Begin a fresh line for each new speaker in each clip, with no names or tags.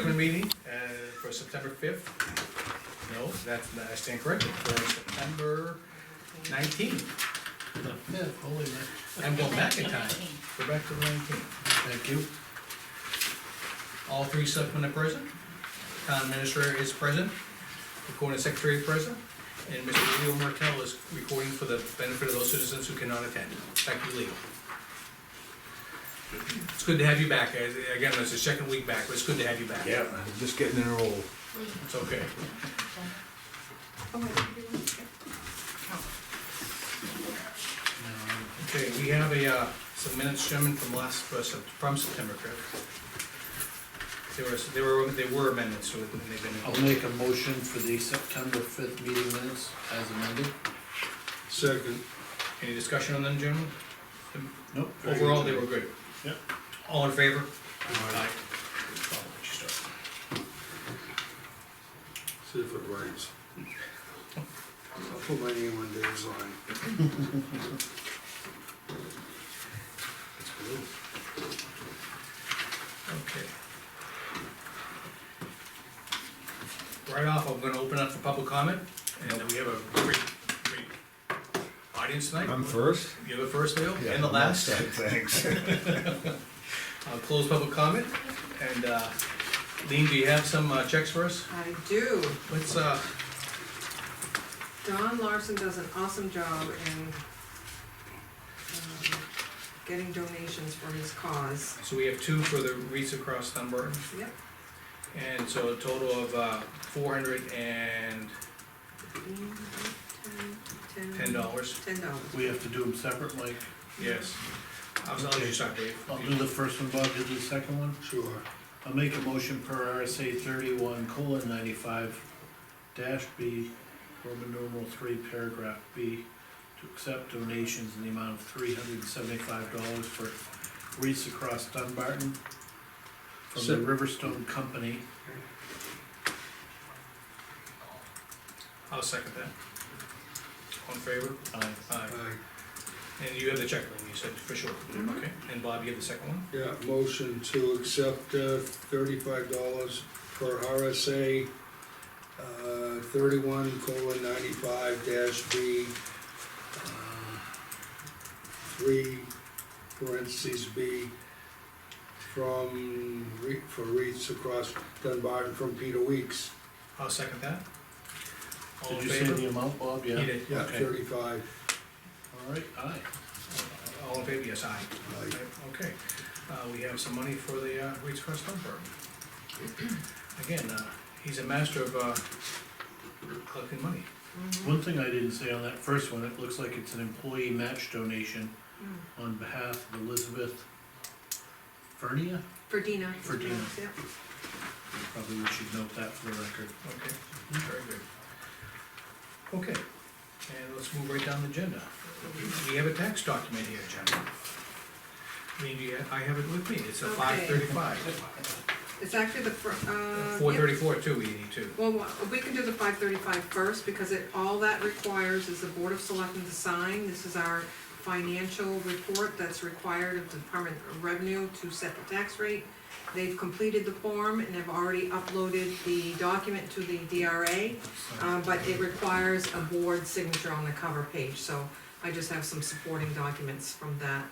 meeting, uh, for September fifth. No, that's, I stand corrected, for September nineteenth.
Yeah, holy man,
I'm going back in time,
19.
go back to the nineteenth.
thank you.
All three selectmen are present, town administrator is present, recording secretary is present, and Mr. Leo Martell is recording for the benefit of those citizens who cannot attend. Thank you, Leo. It's good to have you back, guys. again, it's the second week back, but it's good to have you back.
Yeah, I'm just getting in a roll.
It's okay. Okay, we have a, uh, some minutes, gentlemen, from last, uh, Sep- from September, correct? There was, there were, there were amendments to it, and they've been,
I'll make a motion for the September fifth meeting minutes as amended.
Second.
any discussion on them, gentlemen?
Nope.
Overall, they were good.
Yep.
All in favor?
Aye.
Oh, what'd you start?
See if it rains. I'll put my name on Dave's line. It's blue.
Okay. Right off, I'm gonna open up for public comment, and we have a great, great audience tonight.
I'm first?
You're the first, Leo,
Yeah,
and the
I'm
last.
outside, Thanks.
I'll close public comment, and, uh, Lean, do you have some uh, checks for us?
I do.
Let's, uh,
Don Larson does an awesome job in um, getting donations for his cause.
so we have two for the wreaths across Dunbar,
Yep,
and so a total of, uh, four hundred and
fifteen, ten,
ten dollars,
Ten dollars.
We have to do them separate, like,
yes. I'll I'll let you start, Dave.
I'll do the first one, Bob, you do the second one?
Sure.
I'll make a motion per RSA thirty-one colon ninety-five dash B, Roman numeral three, paragraph B, to accept donations in the amount of three hundred and seventy-five dollars for wreaths across Dunbarton from the
Sep-
Riverstone Company.
I'll second that. All in favor?
Uh,
Aye. And you have the check, Lean, you said, for sure, okay? And Bob, you have the second one?
Yeah, motion to accept uh, thirty-five dollars per RSA uh, thirty-one colon ninety-five dash B. um, Three parentheses B from, Re- for Reeds across Dunbar and from Peter Weeks.
I'll second that. All
Did
in
you say
favor?
the amount, Bob?
He
Yeah.
did.
Yeah,
Okay.
thirty-five.
All right, aye.
All in favor, yes, aye.
Aye.
Okay, uh, we have some money for the, uh, Reed's Crest Dump Barn. Again, uh, he's a master of, uh, collecting money.
One thing I didn't say on that first one, it looks like it's an employee match donation on behalf of Elizabeth Fernia?
For Dina.
For Dina.
Yep.
Probably we should note that for the record.
Okay, very good. Okay, and let's move right down the agenda. We have a tax document here, Jen. I mean, you- I have it with me, it's a
Okay. Uh,
five thirty-five,
It's actually the fir, uh.
four
yep.
thirty-four too, we need to.
Well, wha- we can do the five thirty-five first, because it, all that requires is the Board of Selectmen to sign. This is our financial report that's required of the Department of Revenue to set the tax rate. They've completed the form and have already uploaded the document to the DRA, uh, but it requires a board signature on the cover page, so I just have some supporting documents from that,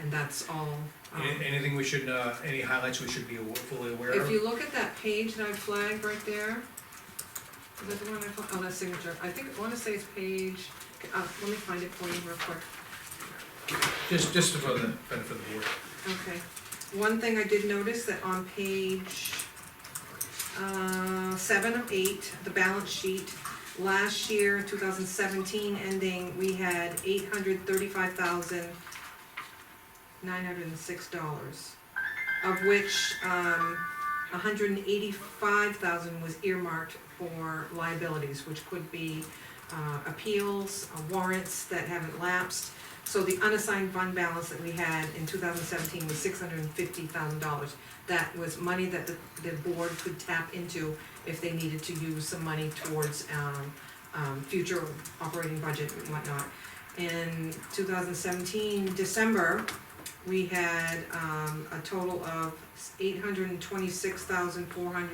and that's all. um,
An- Anything we should, uh, any highlights we should be awa- fully aware
if
of?
you look at that page that I flagged right there, is that the one I, fla- oh, that's signature, I think, I wanna say it's page, uh, let me find it for you real quick,
Just, just for the benefit of the board.
okay. One thing I did notice that on page, uh, seven of eight, the balance sheet, last year, two thousand seventeen ending, we had eight hundred thirty-five thousand nine hundred and six dollars, of which, um, hundred and eighty-five thousand was earmarked for liabilities, which could be, uh, appeals, uh, warrants that haven't lapsed. So the unassigned fund balance that we had in two thousand seventeen was six hundred and fifty thousand dollars. That was money that the, the board could tap into if they needed to use some money towards, um, um, future operating budget and whatnot. In two thousand seventeen, December, we had, um, a total of eight hundred and twenty-six thousand four hundred